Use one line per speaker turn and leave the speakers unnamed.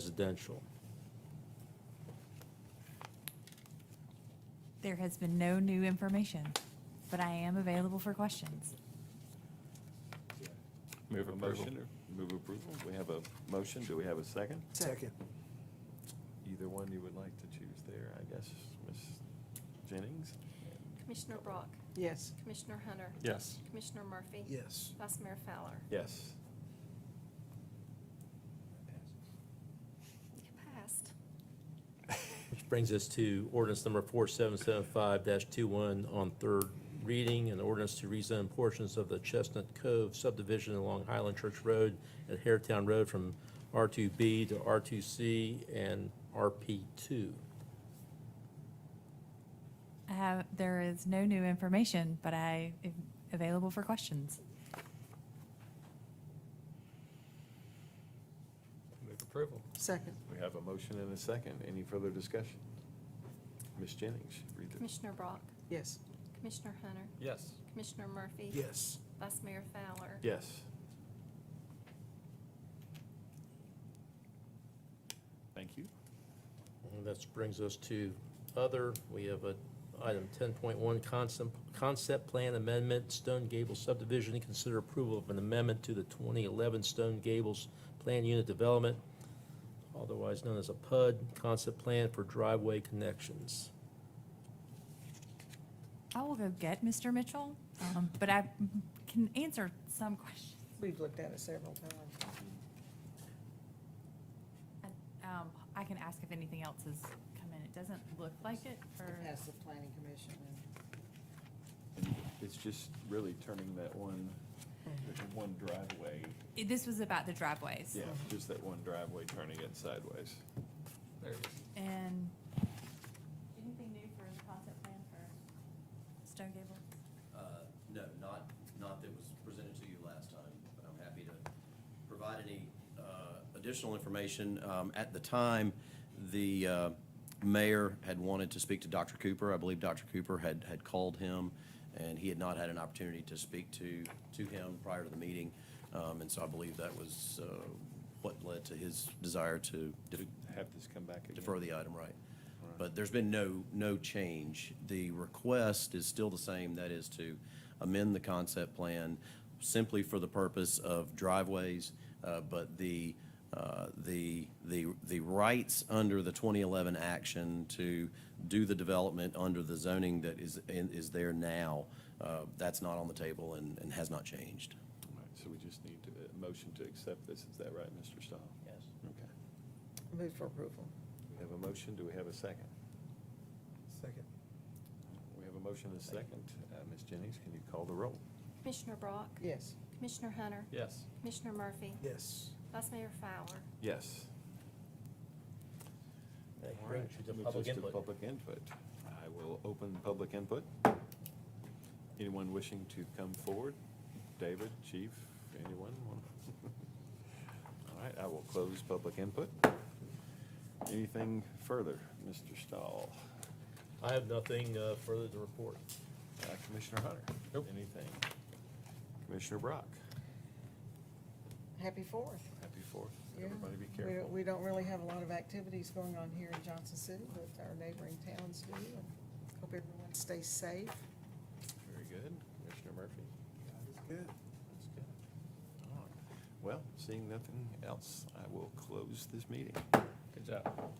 residential.
There has been no new information, but I am available for questions.
Move
A
approval.
motion or- Move approval. We have a motion. Do we have a second?
Second.
Either one you would like to choose there, I guess, Ms. Jennings?
Commissioner Brock,
Yes.
Commissioner Hunter,
Yes.
Commissioner Murphy.
Yes.
Vice Mayor Fowler.
Yes.
You passed.
Which brings us to ordinance number 4775-21 on third reading, an ordinance to rezone portions of the Chestnut Cove subdivision along Highland Church Road and Hairtown Road from R2B to R2C and RP2.
I have, there is no new information, but I am available for questions.
Move approval.
Second.
We have a motion and a second. Any further discussion? Ms. Jennings, read the.
Commissioner Brock,
Yes.
Commissioner Hunter,
Yes.
Commissioner Murphy.
Yes.
Vice Mayor Fowler.
Yes. Thank you.
And That brings us to other, we have a item 10.1, concept, concept plan amendment, Stone Gables subdivision, consider approval of an amendment to the 2011 Stone Gables Plan Unit Development, otherwise known as a PUD, concept plan for driveway connections.
I will go get Mr. Mitchell, um, but I can answer some questions.
We've looked at it several times.
Um, I can ask if anything else has come in. It doesn't look like it, or,
As the planning commission. and-
It's just really turning that one, that one driveway,
It- this was about the driveways.
yeah, just that one driveway, turning it sideways.
There it is.
And. Anything new for the concept plan for Stone Gable?
Uh, No, not, not that was presented to you last time, but I'm happy to provide any uh, additional information. Um, At the time, the uh, mayor had wanted to speak to Dr. Cooper. I believe Dr. Cooper had, had called him, and he had not had an opportunity to speak to, to him prior to the meeting. Um, And so I believe that was uh, what led to his desire to
To Have this come back again.
defer the item, right. But there's been no, no change. The request is still the same, that is to amend the concept plan simply for the purpose of driveways, uh, but the, uh, the, the, the rights under the 2011 action to do the development under the zoning that is, is there now, uh, that's not on the table and, and has not changed.
All right, So we just need to, a motion to accept this, is that right, Mr. Stahl?
Yes.
Okay.
Move for approval.
We have a motion, do we have a second?
Second.
We have a motion and a second. Uh, Ms. Jennings, can you call the roll?
Commissioner Brock,
Yes.
Commissioner Hunter,
Yes.
Commissioner Murphy.
Yes.
Vice Mayor Fowler.
Yes.
That
All
brings
right,
you to
moves
public
us to
input.
Public input. I will open public input. Anyone wishing to come forward? David, Chief, anyone? All right, I will close public input. Anything further, Mr. Stahl?
I have nothing uh, further to report.
Uh, Commissioner Hunter?
Nope.
Anything? Commissioner Brock?
Happy Fourth.
Happy Fourth.
Yeah.
Everybody be
We don't-
careful.
We don't really have a lot of activities going on here in Johnson City, but our neighboring towns do. and Hope everyone stays safe.
Very good. Commissioner Murphy?
Good.
That's good. All right. Well, seeing nothing else, I will close this meeting.
Good job.